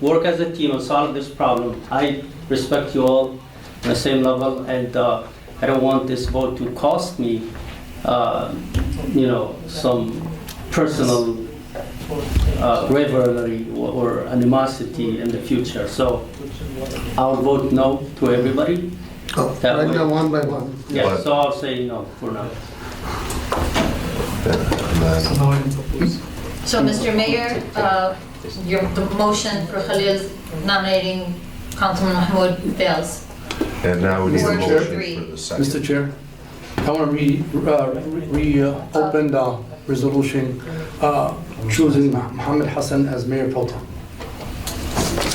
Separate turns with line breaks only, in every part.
work as a team and solve this problem. I respect you all on the same level, and uh, I don't want this vote to cost me, uh, you know, some personal uh, rivalry or or animosity in the future. So I'll vote no to everybody.
Oh,
That
Right
way.
now, one by one.
Yeah,
But-
so I'll say no for now.
Then
So,
Mm-hmm.
Mr. Mayor, uh, your, the motion for Khalil nominating Councilman Mahmoud fails.
And now we need a
Mr.
motion
Chair?
for the
Mr.
second.
Chair, I uh, want to reopen the resolution uh, choosing Mohammed Hassan as mayor pro tem.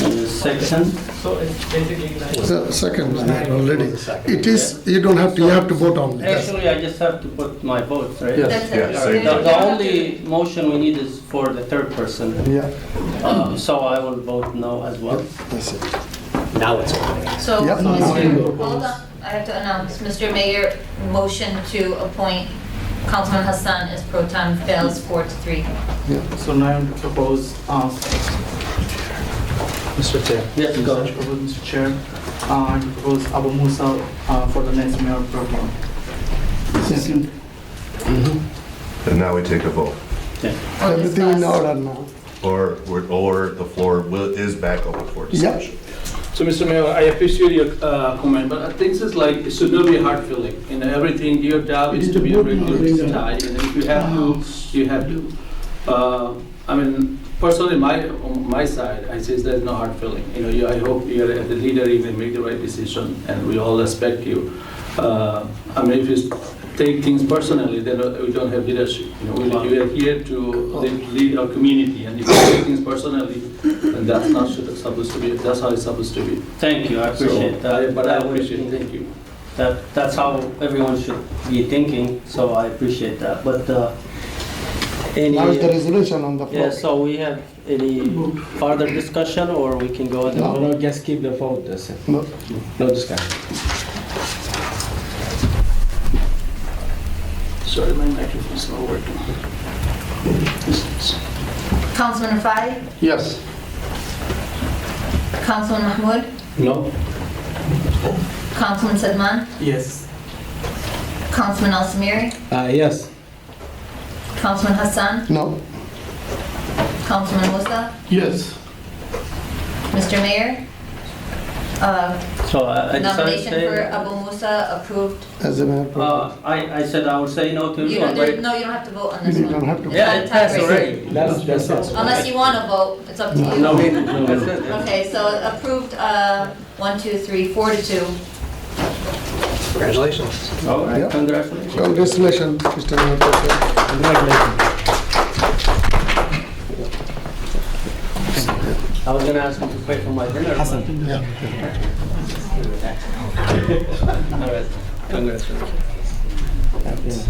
And the second,
So it's basically like.
Se- Second, already.
Second.
It is, you don't have to, you have to vote on it.
actually, I just have to put my vote, right?
Yes.
That's
Yeah,
The
same
it.
thing.
the only motion we need is for the third person,
Yeah.
Uh, so I will vote no as well.
That's it.
So,
Yeah, no, no,
Mr.
no.
hold on, I have to announce, Mr. Mayor, motion to appoint Councilman Hassan as pro tem fails four to three.
So now I'm to propose, um, Mr. Chair.
Yes, go
I
ahead.
propose, Mr. Chair, uh, I propose Abu Musa uh, for the next mayor pro tem.
And now we take a vote.
Or
Everything in
discuss.
order now.
Or, we're- or the floor will- is back open for discussion.
So, Mr. Mayor, I appreciate your uh, comment, but things is like, it should not be hard feeling. In everything, your job is to be a regular guy, and if you have to, you have to. Uh, I mean, personally, my, on my side, I says there's no hard feeling. You know, you- I hope you're the leader, you will make the right decision, and we all respect you. Uh, I mean, if you take things personally, then uh, we don't have leadership. You know, we- we are here to lead our community, and if you take things personally, and that's not should- supposed to be, that's how it's supposed to be.
Thank you, I appreciate
So, I-
that.
But I
That would-
appreciate, it. thank you.
That, that's how everyone should be thinking, so I appreciate that, but, uh, any,
Now is the resolution on the floor.
yeah, so we have any further discussion, or we can go ahead and vote?
No, just keep the vote, that's it.
No.
No discussion.
Sorry, my microphone's not working.
Councilman Rafai,
Yes.
Councilman Mahmoud,
No?
Councilman Sedman,
Yes.
Councilman Al Samiri,
Uh, yes.
Councilman Hassan,
No,
Councilman Musa,
Yes.
Mr. Mayor, uh,
So I, I decided to
nomination for
say,
Abu Musa approved.
as a mayor pro tem.
uh, I, I said I would say no to
You
everyone,
don't,
but
there- no, you don't have to vote on this
You
one.
don't have to
It's
vote.
Yeah,
not a
it passed
tiebreaker.
already.
That's, that's it.
Unless you want to vote, it's up to you.
No, no, no.
Okay, so approved, uh, one, two, three, four to two.
all right,
Yeah.
congratulations.
Congratulations, Mr. Mayor pro tem.
I was gonna ask him to pay for my dinner. Hassan. All right, congratulations.
Yes,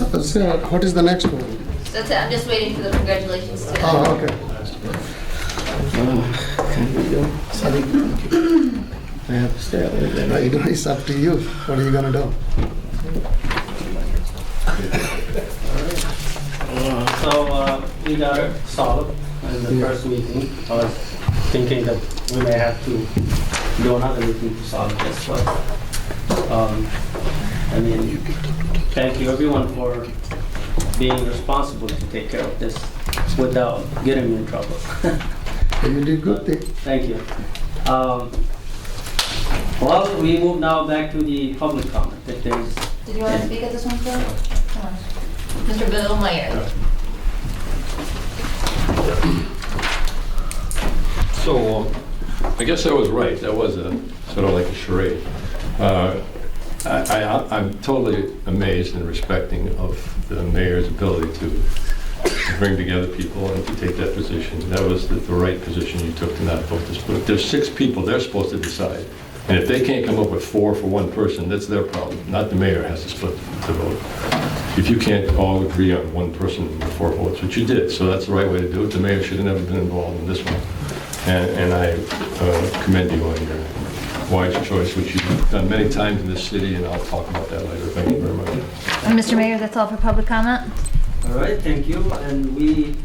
uh, sir, What is the next one?
That's it, I'm just waiting for the congratulations to.
Oh, okay.
Oh,
Sorry,
I have to stay away then.
you know, it's up to you. What are you gonna do?
So, uh, we got it solved in the first meeting. I was thinking that we may have to do another meeting to solve this, but, um, I mean, thank you everyone for being responsible to take care of this without getting me in trouble.
You did good thing.
Thank you. Um, Well, we move now back to the public comment, if there's
Did you want to speak at this one, Phil? Come on. Mr. Bill Meyer.
So, um, I guess I was right, that was a, sort of like a charade. Uh, I, I, I'm totally amazed and respecting of the mayor's ability to bring together people and to take that position. That was the, the right position you took to not vote this, but there's six people, they're supposed to decide. And if they can't come up with four for one person, that's their problem, not the mayor has to split the vote. If you can't all agree on one person with four votes, which you did, so that's the right way to do it, the mayor should have never been involved in this one. And and I uh, commend you on your wise choice, which you've done many times in this city, and I'll talk about that later. Thank you very much.
Mr. Mayor, that's all for public comment?
All right, thank you, and we